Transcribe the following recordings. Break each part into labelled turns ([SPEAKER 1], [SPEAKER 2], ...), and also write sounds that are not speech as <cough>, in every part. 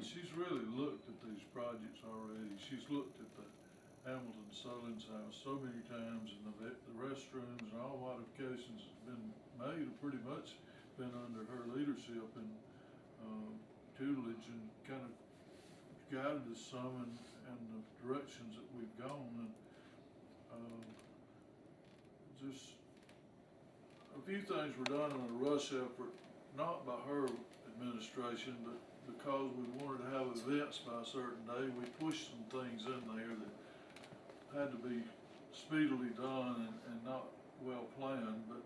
[SPEAKER 1] she's really looked at these projects already. She's looked at the Hamilton Solon's house so many times and the, vet- the restrooms and all modifications that's been made have pretty much been under her leadership and, um, tutelage and kind of guided us some and, and the directions that we've gone and, um, just a few things were done in a rush effort, not by her administration, but because we wanted to have events by a certain day, we pushed some things in there that had to be speedily done and, and not well planned, but,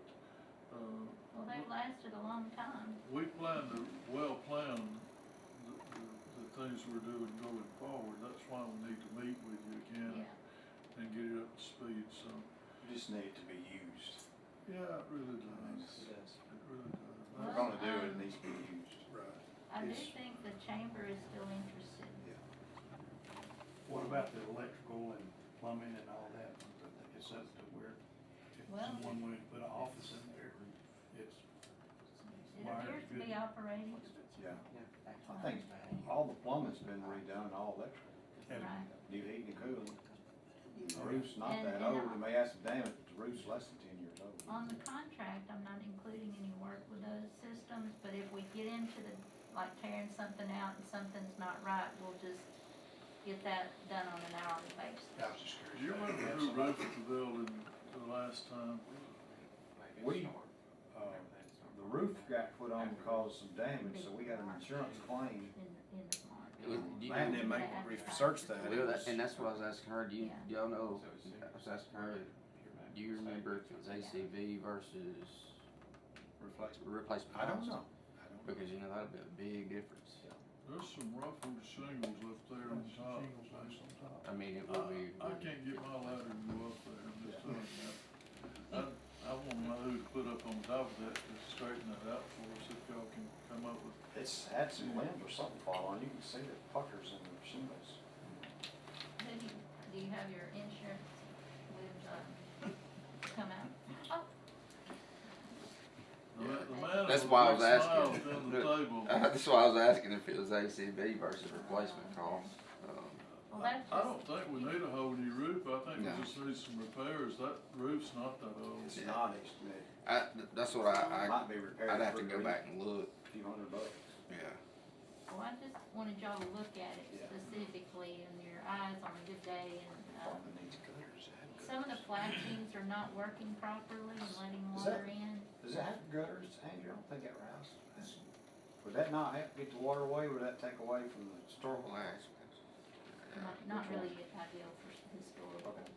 [SPEAKER 1] uh.
[SPEAKER 2] Well, they've lasted a long time.
[SPEAKER 1] We plan to, well plan the, the, the things we're doing going forward, that's why we need to meet with you again and get it up to speed, so,
[SPEAKER 3] Just need to be used.
[SPEAKER 1] yeah, it really
[SPEAKER 3] I mean, it's-
[SPEAKER 1] does, it really does.
[SPEAKER 3] If we're
[SPEAKER 1] That's-
[SPEAKER 3] gonna do it, it needs to be used.
[SPEAKER 4] Right.
[SPEAKER 2] I do
[SPEAKER 3] Yes.
[SPEAKER 2] think the chamber is still interested.
[SPEAKER 5] What about the electrical and plumbing and all that? It's up to where, if
[SPEAKER 2] Well-
[SPEAKER 5] someone wanted to put an office in there, it's,
[SPEAKER 2] It
[SPEAKER 5] Wired
[SPEAKER 2] appears to be
[SPEAKER 5] good.
[SPEAKER 2] operating.
[SPEAKER 3] Yeah. I think all the plumbing's been redone, all electrical,
[SPEAKER 5] and
[SPEAKER 2] Right.
[SPEAKER 3] new heating and cooling. The
[SPEAKER 5] Right.
[SPEAKER 3] roof's not
[SPEAKER 2] And-
[SPEAKER 3] that
[SPEAKER 2] and
[SPEAKER 3] old, and they asked them if the roof's less than ten years old.
[SPEAKER 2] On the contract, I'm not including any work with those systems, but if we get into the, like tearing something out and something's not right, we'll just get that done on an hourly
[SPEAKER 5] I
[SPEAKER 2] basis.
[SPEAKER 5] was just
[SPEAKER 1] Do
[SPEAKER 5] curious.
[SPEAKER 1] you
[SPEAKER 5] about
[SPEAKER 1] remember
[SPEAKER 5] that.
[SPEAKER 1] who roofed the building the last time?
[SPEAKER 3] We, uh, the roof got put on because of damage, so we got an insurance claim.
[SPEAKER 2] In, in the market.
[SPEAKER 6] It was- do you-
[SPEAKER 3] They had to make, research that.
[SPEAKER 6] Well, that, and that's what I was asking her, do you,
[SPEAKER 2] Yeah.
[SPEAKER 6] do y'all know, I was asking her, do you remember if it was ACV versus
[SPEAKER 3] Replacement.
[SPEAKER 6] replacement
[SPEAKER 3] I don't
[SPEAKER 6] cost?
[SPEAKER 3] know. I don't know.
[SPEAKER 6] Because, you know, that'd be a big difference.
[SPEAKER 1] There's some ruffled shingles up there on top.
[SPEAKER 5] Shingles on some top.
[SPEAKER 6] I mean, it
[SPEAKER 1] I,
[SPEAKER 6] would be.
[SPEAKER 1] Uh, I can't get my ladder to go up there, I'm just telling you. I, I wanna know who to put up on top of that to straighten that out for us, if y'all can come up with.
[SPEAKER 3] It's had some limbs or something fall on, you can see the puckers in the shingles.
[SPEAKER 2] Who do you, do you have your insurance with, um, come out? Oh,
[SPEAKER 1] The ma- the
[SPEAKER 2] Yeah.
[SPEAKER 1] man
[SPEAKER 6] That's
[SPEAKER 1] with
[SPEAKER 6] why I
[SPEAKER 1] the
[SPEAKER 6] was
[SPEAKER 1] big
[SPEAKER 6] asking.
[SPEAKER 1] smile down the table.
[SPEAKER 6] <laughs> That's why I was asking if it was ACV versus replacement cost. Um,
[SPEAKER 2] well, that's
[SPEAKER 1] I
[SPEAKER 2] just.
[SPEAKER 1] don't think we need a whole new roof, I think
[SPEAKER 3] No.
[SPEAKER 1] we just need some repairs, that roof's not that old.
[SPEAKER 3] It's not, it's,
[SPEAKER 6] I, th- that's what
[SPEAKER 3] it
[SPEAKER 6] I,
[SPEAKER 3] might be repaired.
[SPEAKER 6] I, I'd have to
[SPEAKER 3] for
[SPEAKER 6] go
[SPEAKER 3] a
[SPEAKER 6] back and look,
[SPEAKER 3] Few hundred bucks.
[SPEAKER 6] yeah.
[SPEAKER 2] Well, I just wanted y'all to look at it
[SPEAKER 3] Yeah.
[SPEAKER 2] specifically and your eyes on a good day and, um,
[SPEAKER 3] Probably needs gutters. It had
[SPEAKER 2] some of the
[SPEAKER 3] gutters.
[SPEAKER 2] flashings are not working properly and letting
[SPEAKER 3] Is
[SPEAKER 2] water
[SPEAKER 3] that-
[SPEAKER 2] in.
[SPEAKER 3] Does it have gutters, Andrew? I don't think it has. Would that not have to get the water away, would that take away from the storm?
[SPEAKER 6] Well, that's-
[SPEAKER 2] Not,
[SPEAKER 3] which one?
[SPEAKER 2] not really ideal for s- historical.
[SPEAKER 3] Okay.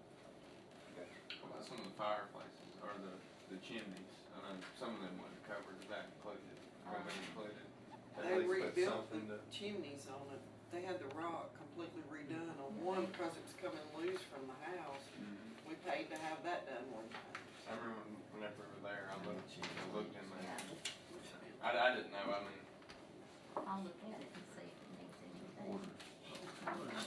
[SPEAKER 3] Okay.
[SPEAKER 7] What about some of the fireplaces or the, the chimneys? I know some of them wasn't covered, is that included, Were they included? At
[SPEAKER 8] They
[SPEAKER 7] least put
[SPEAKER 8] rebuilt
[SPEAKER 7] something
[SPEAKER 8] the
[SPEAKER 7] to-
[SPEAKER 8] chimneys on it, they had the rock completely redone on one because it was coming loose from the house.
[SPEAKER 7] Mhm.
[SPEAKER 8] We paid to have that done one time.
[SPEAKER 7] I remember when- whenever we were there, I looked, I looked in there.
[SPEAKER 2] Yeah,
[SPEAKER 7] I, I didn't know, I mean,
[SPEAKER 2] I'll look at it and see if it needs anything.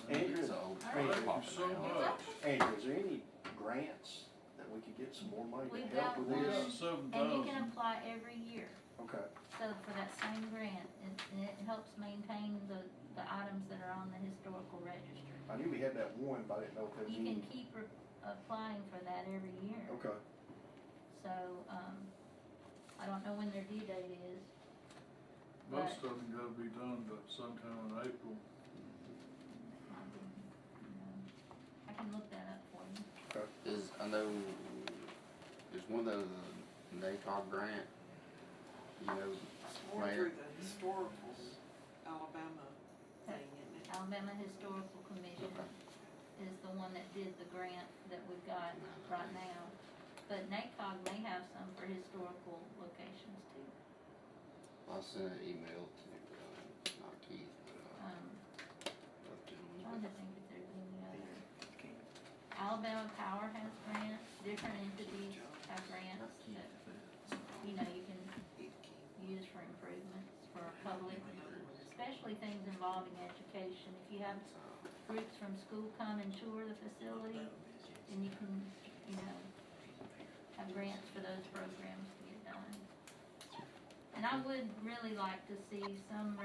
[SPEAKER 9] Andrew,
[SPEAKER 6] It's old.
[SPEAKER 2] All
[SPEAKER 1] Thank
[SPEAKER 2] right.
[SPEAKER 1] you so
[SPEAKER 6] Oh,
[SPEAKER 1] much.
[SPEAKER 9] Andrew, is there any grants that we could get some more money
[SPEAKER 2] We've
[SPEAKER 9] to help
[SPEAKER 2] got
[SPEAKER 9] with
[SPEAKER 2] one,
[SPEAKER 9] this?
[SPEAKER 1] Seven
[SPEAKER 2] and you can
[SPEAKER 1] thousand.
[SPEAKER 2] apply every year.
[SPEAKER 9] Okay,
[SPEAKER 2] So for that same grant, and, and it helps maintain the, the items that are on the historical register.
[SPEAKER 9] I knew we had that one, but I didn't know if there was
[SPEAKER 2] You can
[SPEAKER 9] any.
[SPEAKER 2] keep re- applying for that every year.
[SPEAKER 9] Okay,
[SPEAKER 2] So, um, I don't know when their due date is.
[SPEAKER 1] Most
[SPEAKER 2] but,
[SPEAKER 1] of them gotta be done by sometime in April.
[SPEAKER 2] um, you know, I can look that up for you.
[SPEAKER 6] Is, I know, there's one of those NACOG grant, you know,
[SPEAKER 8] It's more
[SPEAKER 6] Right.
[SPEAKER 8] through the historical Alabama thing, isn't it?
[SPEAKER 2] Alabama Historical Commission is the one that did the grant that we've got right now. But NACOG may have some for historical locations too.
[SPEAKER 6] I sent an email to, um, not Keith, but,
[SPEAKER 2] Um,
[SPEAKER 6] uh, up to
[SPEAKER 2] trying
[SPEAKER 6] him.
[SPEAKER 2] to think if there's any other. Alabama Power has grants, different entities have grants that, you know, you can use for improvements for public, especially things involving education. If you have groups from school come and tour the facility, then you can, you know, have grants for those programs to get done. And I would really like to see some